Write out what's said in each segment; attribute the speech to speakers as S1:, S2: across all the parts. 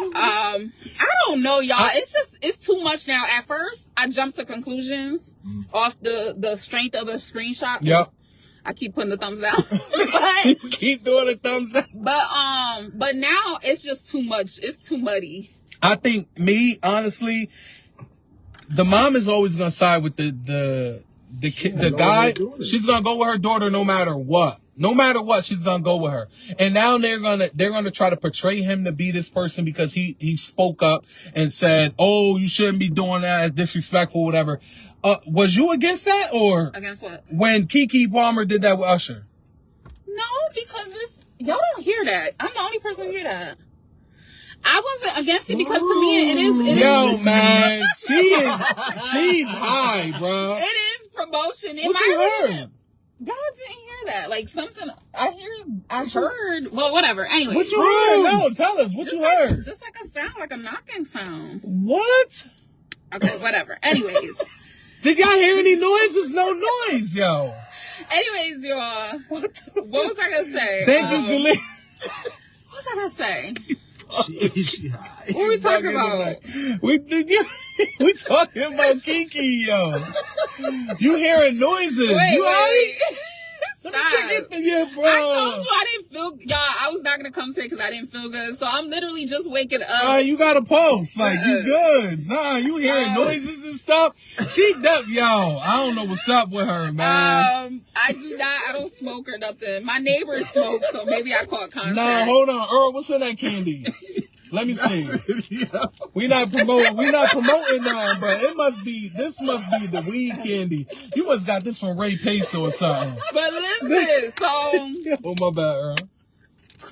S1: Um, I don't know, y'all. it's just it's too much now. At first, I jumped to conclusions
S2: Mm.
S1: off the the strength of the screenshot.
S2: Yep.
S1: I keep putting the thumbs out, but
S2: Keep doing the thumbs up.
S1: but um, but now it's just too much. It's too muddy.
S2: I think me honestly, the mom is always gonna side with the the the kid, the
S3: gonna
S2: guy.
S3: do it.
S2: She's gonna go with her daughter no matter what. No matter what, she's gonna go with her. And now they're gonna they're gonna try to portray him to be this person because he he spoke up and said, "Oh, you shouldn't be doing that. It's disrespectful, whatever." Uh, was you against that or
S1: Against what?
S2: when Kiki Palmer did that with Usher?
S1: No, because it's y'all don't hear that. I'm the only person who hear that. I wasn't against it because to me it is it is
S2: Yo, man, she is she's high, bro.
S1: it is promotion. It
S2: What
S1: might
S2: you
S1: have
S2: heard?
S1: been- Y'all didn't hear that. Like something I hear I heard well whatever. Anyway.
S2: What you heard? No, tell us what
S1: just,
S2: you
S1: like,
S2: heard.
S1: just like a sound, like a knocking sound.
S2: What?
S1: Okay, whatever. Anyways.
S2: Did y'all hear any noises? No noise, yo.
S1: Anyways, y'all.
S2: What? the-
S1: What was I gonna say?
S2: Thank
S1: Um,
S2: you, Julie.
S1: What was I gonna say?
S3: She, she high.
S1: What were we talking about?
S2: We did you, we talking about Kiki, yo. You hearing noises?
S1: Wait,
S2: you alright?
S1: wait.
S2: Let me
S1: Stop.
S2: check it. Oh. Yeah, bro.
S1: I told you I didn't feel y'all. I was not gonna come today because I didn't feel good. So I'm literally just waking up.
S2: Nah, you got a pulse. Like you
S1: up.
S2: good. Nah, you hearing
S1: Uh,
S2: noises and stuff. She up, yo. I don't know what's up with her, man.
S1: um, I do not. I don't smoke or nothing. My neighbors smoke, so maybe I caught contact.
S2: nah, hold on, Earl. What's in that candy? Let me see.
S3: yeah.
S2: We not promoting. We not promoting none, but it must be. This must be the weed candy. You must got this from Ray Peso or something.
S1: But listen, so I
S2: Oh my bad, Earl.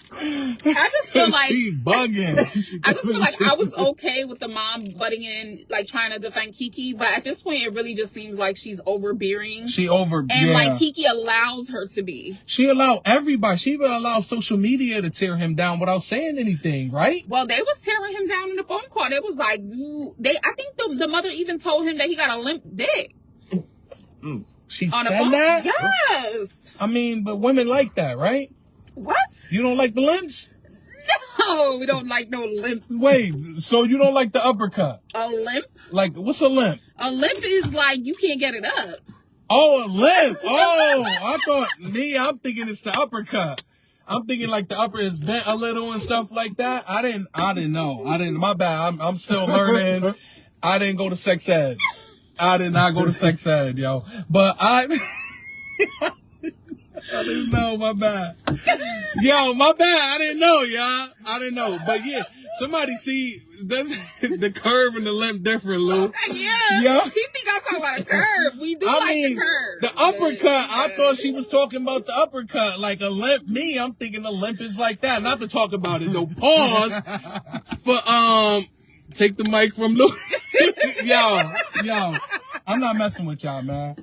S1: just feel like
S2: she bugging.
S1: I just feel like I was okay with the mom butting in, like trying to defend Kiki. But at this point, it really just seems like she's overbearing.
S2: She over.
S1: And
S2: yeah.
S1: like Kiki allows her to be.
S2: she allowed everybody. She even allowed social media to tear him down without saying anything, right?
S1: Well, they was tearing him down in the phone call. They was like, you. They. I think the, the mother even told him that he got a limp dick
S2: She
S1: on a
S2: said
S1: phone.
S2: that.
S1: Yes.
S2: I mean, but women like that, right?
S1: What?
S2: You don't like the limbs?
S1: No, we don't like no limp.
S2: Wait, so you don't like the uppercut?
S1: A limp.
S2: Like, what's a limp?
S1: A limp is like you can't get it up.
S2: Oh, a limp. Oh, I thought me. I'm thinking it's the uppercut. I'm thinking like the upper is bent a little and stuff like that. I didn't. I didn't know. I didn't. My bad. I'm, I'm still learning. I didn't go to sex ed. I did not go to sex ed, yo. But I. I didn't know. My bad. Yo, my bad. I didn't know, y'all. I didn't know. But yeah, somebody see the, the curve and the limp different, Lou.
S1: Yeah.
S2: Yeah.
S1: He think I'm talking about a curve. We do
S2: I
S1: like
S2: mean,
S1: the curve.
S2: the
S1: but-
S2: uppercut. I
S1: yeah.
S2: thought she was talking about the uppercut, like a limp. Me, I'm thinking a limp is like that. Not to talk about it though. Pause. For um, take the mic from Lou. yo, yo, I'm not messing with y'all, man.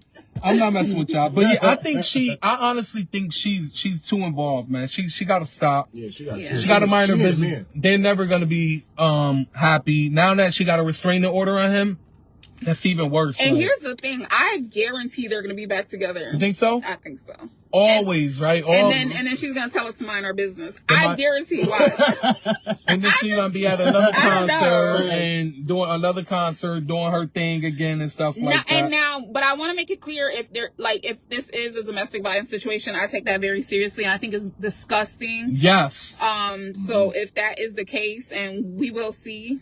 S2: I'm not messing with y'all, but yeah, I think she. I honestly think she's she's too involved, man. She she got to stop.
S3: Yeah, she got.
S1: Yeah.
S3: two.
S2: She got to mind her
S3: She a
S2: business.
S3: man.
S2: They're never gonna be um happy now that she got a restraining order on him. That's even worse.
S1: And
S2: like.
S1: here's the thing. I guarantee they're gonna be back together.
S2: you think so?
S1: I think so. And
S2: Always, right? Always.
S1: then and then she's gonna tell us to mind our business.
S2: Am
S1: I
S2: I-
S1: guarantee why.
S2: And then she's gonna be at another
S1: I don't know.
S2: concert and doing another concert, doing her thing again and stuff
S1: now,
S2: like
S1: and
S2: that.
S1: now, but I want to make it clear if there, like, if this is a domestic violence situation, I take that very seriously. I think it's disgusting.
S2: Yes,
S1: Um, so
S2: Mm-hmm.
S1: if that is the case, and we will see,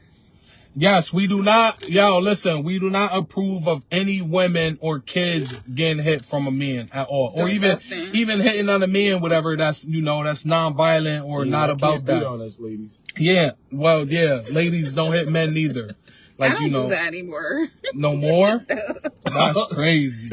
S2: yes, we do not, y'all. Listen, we do not approve of any women or kids getting hit from a man at all, or even
S1: Disgusting.
S2: even hitting on a man, whatever. That's you know, that's non-violent or
S3: Yeah,
S2: not
S3: I
S2: about
S3: can't beat
S2: that.
S3: on us, ladies.
S2: Yeah, well, yeah, ladies don't hit men neither. Like
S1: I don't
S2: you know,
S1: do that anymore.
S2: No more? That's crazy.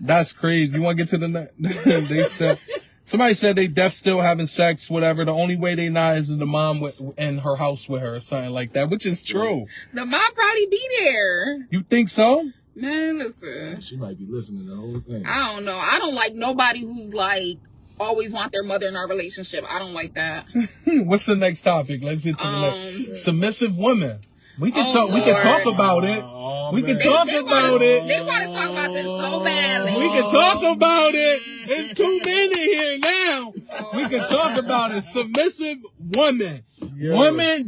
S2: That's crazy. You want to get to the next? they said, somebody said they deaf still having sex, whatever. The only way they not is the mom with, in her house with her or something like that, which is true.
S1: the mom probably be there.
S2: You think so?
S1: Man, listen,
S3: She might be listening to the whole thing.
S1: I don't know. I don't like nobody who's like always want their mother in our relationship. I don't like that.
S2: Hmm, What's the next topic? Let's get to the
S1: Um,
S2: next. Submissive women. We can
S1: Oh,
S2: talk. We can
S1: Lord.
S2: talk about it.
S3: Oh,
S2: we can
S3: man.
S1: They,
S2: talk
S1: they
S2: about
S1: wanna,
S2: it.
S1: They want to talk about this so badly.
S2: We can talk about it. It's too many here now. We can talk about it. Submissive women.
S3: Yes.
S2: Women